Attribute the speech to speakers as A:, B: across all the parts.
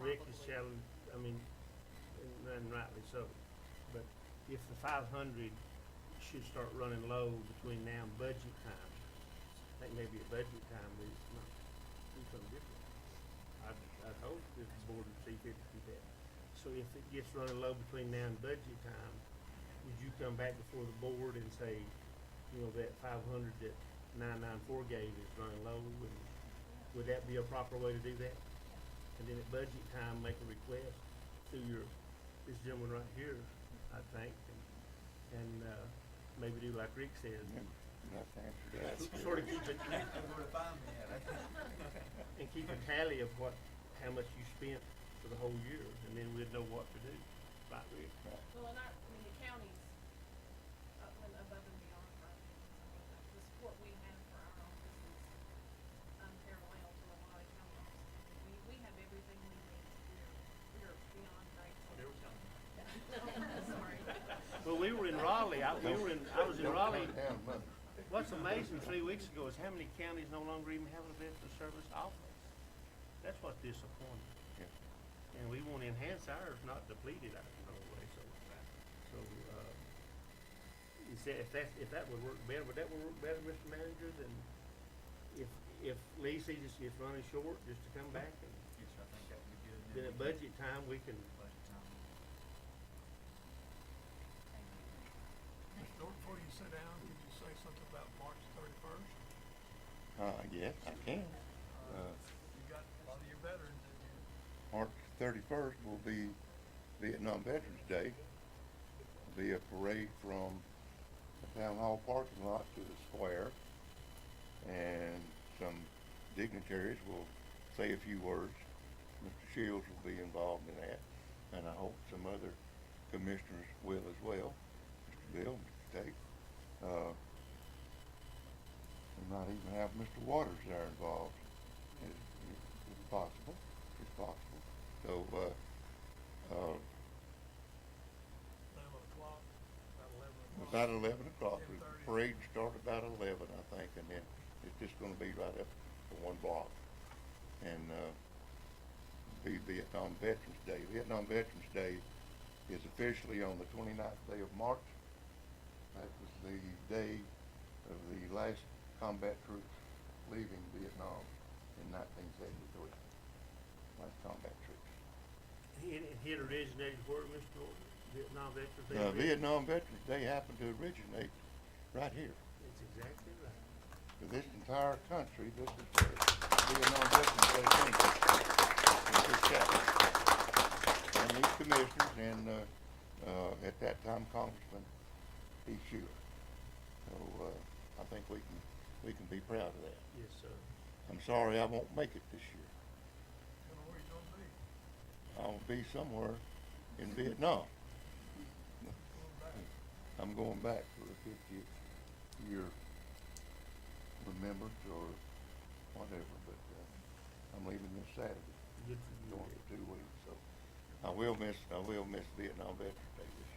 A: Rick
B: probably.
A: is challenged, I mean, and- and rightly so, but if the five hundred should start running low between now and budget time, I think maybe at budget time, we might do something different. I'd, I'd hope that the board would see fit to do that. So if it gets running low between now and budget time, would you come back before the board and say, you know, that five hundred that nine nine four gave is running low, and would that be a proper way to do that? And then at budget time, make a request to your, this gentleman right here, I think, and, and, uh, maybe do like Rick says, sort of keep it,
C: Where to find me at, eh?
A: and keep a tally of what, how much you spent for the whole year, and then we'd know what to do, right, Rick?
B: Well, and our, I mean, the county's up and above and beyond budget. I mean, the- The support we have for our office is unparalleled to a lot of county offices. I mean, We, we have everything we need. We're, we're beyond grateful.
C: There we go.
B: Sorry.
A: Well, we were in Raleigh, I, we were in, I was in Raleigh,
D: mother.
A: what's amazing three weeks ago is how many counties no longer even have a veteran service office. That's what's disappointing. And we want to enhance ours, not deplete it out in no way, so, so, uh, is that, if that, if that would work better, would that would work better, Mr. Manager, than if, if Lee sees us is running short, just to come back and
C: Yes, sir, I think that would be good.
A: then at budget time, we can,
C: Budget time.
E: Mr. Norton, before you sit down, could you say something about March thirty-first?
D: Uh, yes, I can. Uh,
C: You got a lot of your veterans in here.
D: March thirty-first will be Vietnam Veterans Day. Be a parade from the town hall parking lot to the square. And some dignitaries will say a few words. Mr. Shields will be involved in that, and I hope some other commissioners will as well. Mr. Bill, Mr. Tate. Uh, we might even have Mr. Waters there involved, if, if if possible, if possible. So, uh, uh,
E: Eleven o'clock, about eleven o'clock.
D: about eleven o'clock, the
E: 10:30.
D: parade start about eleven, I think, and then it's just gonna be right up for one block. And, uh, be Vietnam Veterans Day. Vietnam Veterans Day is officially on the 29th day of March. That was the day of the last combat troops leaving Vietnam in nineteen seventy-three. Last combat troops.
A: it, it originated where, Mr. Norton, Vietnam veterans. they
D: Uh,
A: originated-
D: Vietnam Veterans Day happened to originate right here.
A: That's exactly right.
D: for this entire country, this is where Vietnam Veterans Day came from. in this chapel. And these commissioners and, uh, uh, at that time Congressman E. Schuler. So, uh, I think we can, we can be proud of that.
A: Yes, sir.
D: I'm sorry I won't make it this year.
E: And where you gonna be?
D: I'll be somewhere in Vietnam.
E: Going back,
D: I'm going back for the fiftieth year remembrance or whatever, but, uh, I'm leaving this Saturday.
A: Good for you.
D: going for two weeks, so I will miss, I will miss Vietnam Veterans Day this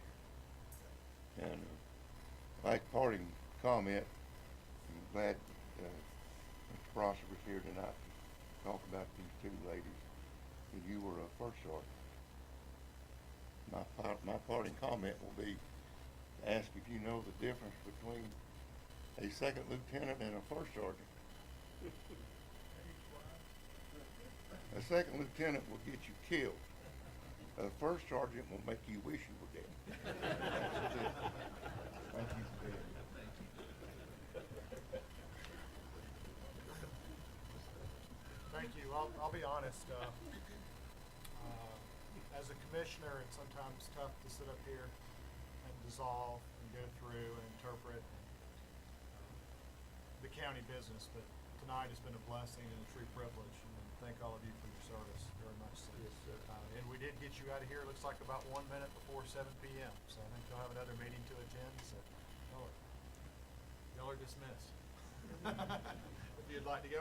D: year. And uh, last parting comment, I'm glad uh, Mr. Prosser was here tonight to talk about these two ladies. And you were a first sergeant. My, par- my parting comment will be, to ask if you know the difference between a second lieutenant and a first sergeant.
E: age-wise,
D: A second lieutenant will get you killed. A first sergeant will make you wish you were dead. Thank you for being here.
F: Thank you. I'll, I'll be honest. Uh, uh, as a commissioner, it's sometimes tough to sit up here and dissolve and go through and interpret uh, the county business, but tonight has been a blessing and a true privilege. And thank all of you for your service very much. So,
A: Yes, sir.
F: Uh, and we did get you out of here. It looks like about one minute before 7 p.m. So I think you'll have another meeting to attend. So y'all are, y'all are dismissed. if you'd like to go.